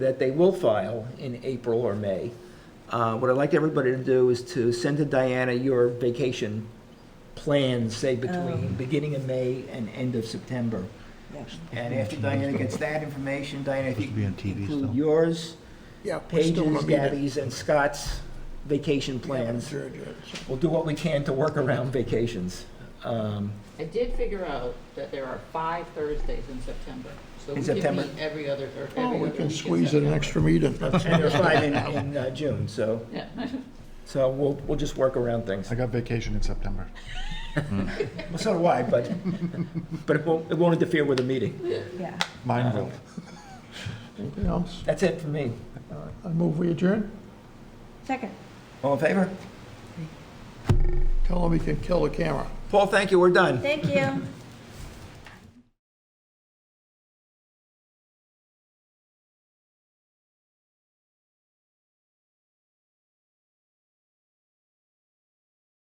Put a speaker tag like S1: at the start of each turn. S1: that they will file in April or May. Uh, What I'd like everybody to do is to send to Diana your vacation plans, say
S2: Oh.
S1: between beginning of May and end of September.
S3: Yeah.
S1: And after Diana gets that information, Diana, if you
S4: Supposed to be on TV
S1: include
S4: still.
S1: yours,
S2: Yeah, we're still
S1: Paige's,
S2: gonna be there.
S1: Gabby's, and Scott's vacation plans,
S2: Sure, sure, sure.
S1: we'll do what we can to work around vacations. Um,
S5: I did figure out that there are five Thursdays in September. So
S1: In
S5: we could
S1: September?
S5: meet every other, or every
S2: Oh,
S5: other
S2: we
S5: week in
S2: can squeeze in an
S5: September.
S2: extra meeting.
S1: And there's five in, in uh, June, so,
S5: Yeah.
S1: so we'll, we'll just work around things.
S4: I got vacation in September.
S1: Well, so do I, but, but it won't, it won't interfere with the meeting.
S3: Yeah.
S4: Mine will.
S2: Anything else?
S1: That's it for me.
S2: I move we adjourn.
S3: Second.
S1: All in favor?
S2: Tell him he can kill the camera.
S1: Paul, thank you, we're done.
S3: Thank you.